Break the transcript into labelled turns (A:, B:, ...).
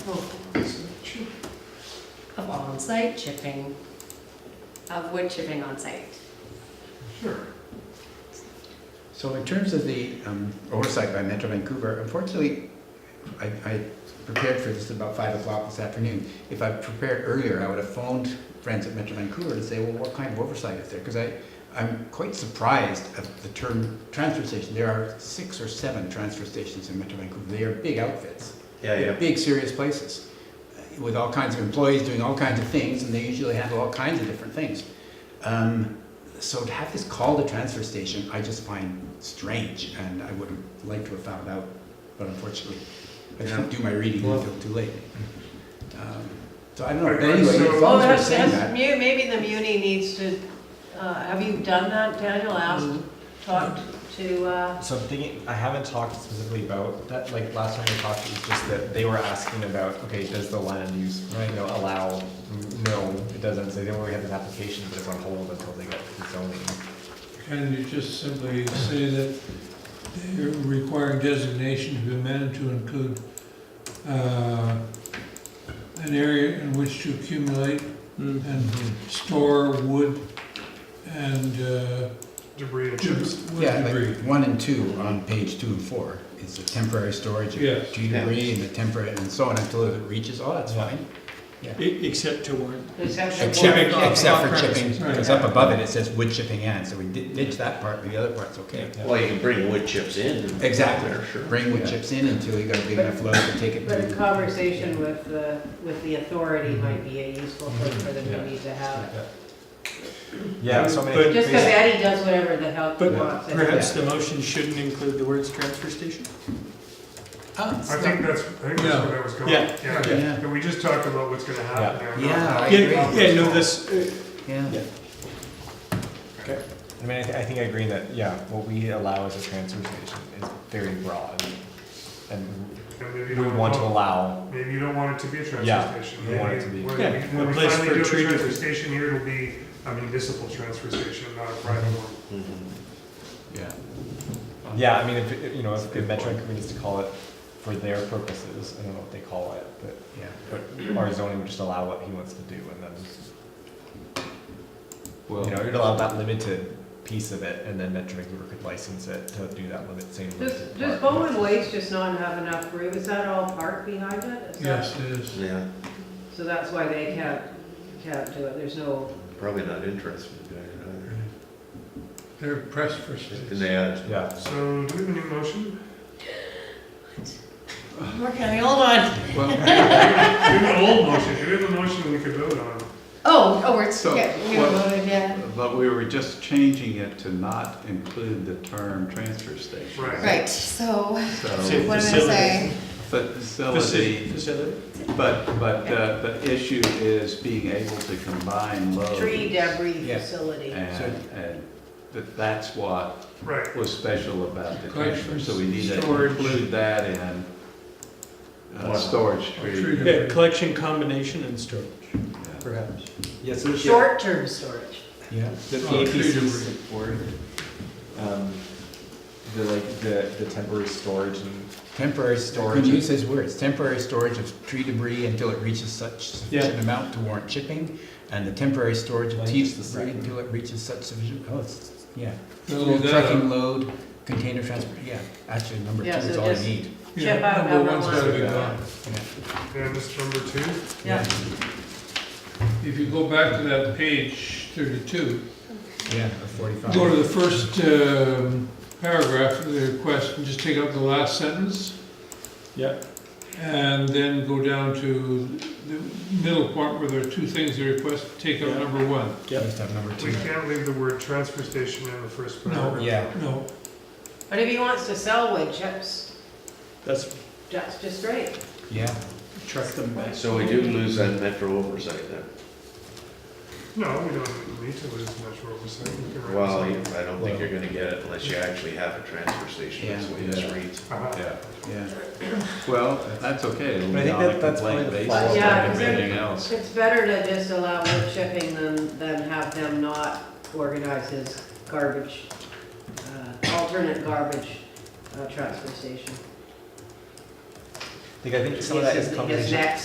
A: of on-site chipping, of wood chipping on-site.
B: Sure.
C: So in terms of the um, oversight by Metro Vancouver, unfortunately, I, I prepared for this about five o'clock this afternoon. If I prepared earlier, I would have phoned friends at Metro Vancouver to say, well, what kind of oversight is there? Because I, I'm quite surprised at the term transfer station. There are six or seven transfer stations in Metro Vancouver. They are big outfits.
B: Yeah,
C: They're
B: yeah.
C: Big, serious places uh, with all kinds of employees doing all kinds of things, and they usually handle all kinds of different things. Um, so to have this called a transfer station, I just find strange, and I would have liked to have found out, but unfortunately, I didn't do my reading
B: Well-
C: until too late. Um, so I don't know. But
B: Alright,
C: anyway,
B: so-
D: Well,
C: as long as
D: that's,
C: we're saying
D: that's,
C: that,
D: mu- maybe the muni needs to, uh, have you done that, Daniel, asked,
A: Mm-hmm.
D: talked to, uh,
E: So I'm thinking, I haven't talked specifically about that, like last time we talked, it was just that they were asking about, okay, does the land use, you know, allow? Mm, No, it doesn't, so they only have this application, but it's on hold until they get the zoning.
B: Can you just simply say that they require designation to be amended to include uh, an area in which to accumulate
F: Hmm.
B: and store wood and uh,
F: debris.
B: deb- wood
C: yeah,
B: debris?
C: like one and two on page two and four is the temporary storage of
B: Yes.
C: debris and the temporary and so on until it reaches. Oh, that's fine.
F: e-, Except to warn.
D: except for.
C: Except,
F: Chipping.
C: except for
F: Off
C: chipping,
B: premises, right.
C: because up above it, it says wood chipping and, so we di- ditch that part, but the other part's okay.
G: Well, you can bring wood chips in. and-
C: Exactly,
G: Sure.
C: bring wood
E: Yeah.
C: chips in until you got a big enough load to take it
D: But a
C: to.
D: conversation with the, with the authority might be a useful thing for the muni to have.
E: Yeah, so
F: But-
E: many.
D: Just because Eddie does whatever the hell he
F: But
D: wants. and-
F: perhaps the motion shouldn't include the words transfer station?
C: Oh,
H: I think that's, I think that's
B: Yeah.
H: where that was going.
F: Yeah.
C: Yeah.
H: And we just talked about what's gonna happen there. not
C: Yeah, I
H: how-
F: Yeah,
C: agree.
F: yeah, no, that's, uh,
C: Yeah,
E: I mean, I, thi- I think I agree that, yeah, what we allow as a transfer station is very broad. And
H: And maybe
E: we
H: you don't
E: want to allow,
H: Maybe you don't want it to be a
E: Yeah,
H: transfer station.
E: we want it to
H: Maybe
E: be.
H: when
F: Yeah,
H: we- When
F: a
H: we
F: place
H: finally
F: for
H: do
F: tree
H: a transfer
F: to-
H: station here, it'll be a municipal transfer station, not a private one.
C: yeah.
E: yeah, I mean, if, it- you know, if if Metro Vancouver needs to call it for their purposes, I don't know what they call it, but
C: Yeah.
E: But our zoning would just allow what he wants to do and then, you know, it'd allow that limited piece of it and then Metro Vancouver could license it to do that limit, same
D: Does,
E: limited
D: does
E: part.
D: Bowman Waste just not have enough room? Is that all park behind it? Is that-
B: Yes, it is.
G: Yeah,
D: So that's why they can't, can't do it. There's no,
G: probably not interested in doing it
B: They're pressed for
G: either.
B: space.
G: And they add,
E: Yeah,
H: So do we have a new motion?
A: Okay, hold on.
C: Well,
H: We have an old motion. Do we have a motion we could vote on?
A: Oh, oh, we're,
I: So,
A: yeah, we were
I: what-
A: voted, yeah.
I: But we were just changing it to not include the term transfer station.
H: Right.
A: Right, so
I: So
F: Say
A: what did I say?
F: facilities. faci-
I: facility,
F: facility.
I: but, but uh, the issue is being able to combine loads.
D: tree debris
C: Yeah.
D: facility.
I: And, and that- that's what
H: Right.
I: was special about the
B: Collection,
I: transfer, so we need to
B: storage.
I: include that in
G: Wow.
I: uh, storage
B: Tree
I: tree.
B: debris.
F: Yeah, collection, combination, and storage, perhaps.
E: yeah, so the,
D: Short-term storage.
E: yeah, the
B: Oh, tree
E: APC
B: debris.
E: support, um, the like, the, the temporary storage and,
C: Temporary storage,
E: Could you-
C: use his words, temporary storage of tree debris until it reaches such sufficient amount to warrant chipping, and the temporary storage of
E: Like,
C: tea
E: just the
C: debris
E: second.
C: until it reaches such sufficient, oh, it's, yeah.
B: Fill
C: Full
B: that
C: Trucking
B: up.
C: load, container transport, yeah, actually, number two
D: Yeah,
C: is
D: so
C: all I
D: just-
C: need.
B: Yeah,
D: Chip out number
B: one's gotta be
D: one.
B: gone.
H: And this is number two.
D: Yeah.
B: If you go back to that page thirty-two,
C: Yeah, or forty-five.
B: Go to the first um, paragraph of the request and just take out the last sentence.
E: Yeah.
B: And then go down to the middle part where there are two things you request, take out
F: Yeah.
B: number one.
F: Yep.
C: Just have number
H: We
C: two.
H: can't leave the word transfer station in the first
B: No.
H: paragraph.
C: Yeah.
B: No,
D: But if he wants to sell wood chips,
F: That's,
D: that's just great.
C: Yeah,
F: truck them back.
G: so we do lose that metro oversight then.
H: No, we don't need to lose much more oversight. We can write
G: Well,
H: this
G: you- I don't think you're gonna get it unless you actually have a transfer station, that's the way this reads.
H: up. Uh-huh.
I: Yeah, yeah. Well, that's okay, it'll
E: But
I: be
E: I think
I: on a
E: that- that's
I: complaint
E: probably the
I: basis, like
D: Yeah, 'cause they're-
I: everything else.
D: It's better to just allow wood chipping than, than have them not organize his garbage, uh, alternate garbage uh, transfer station.
E: Like, I think some of that is
D: Yes,
E: conversation.
D: next.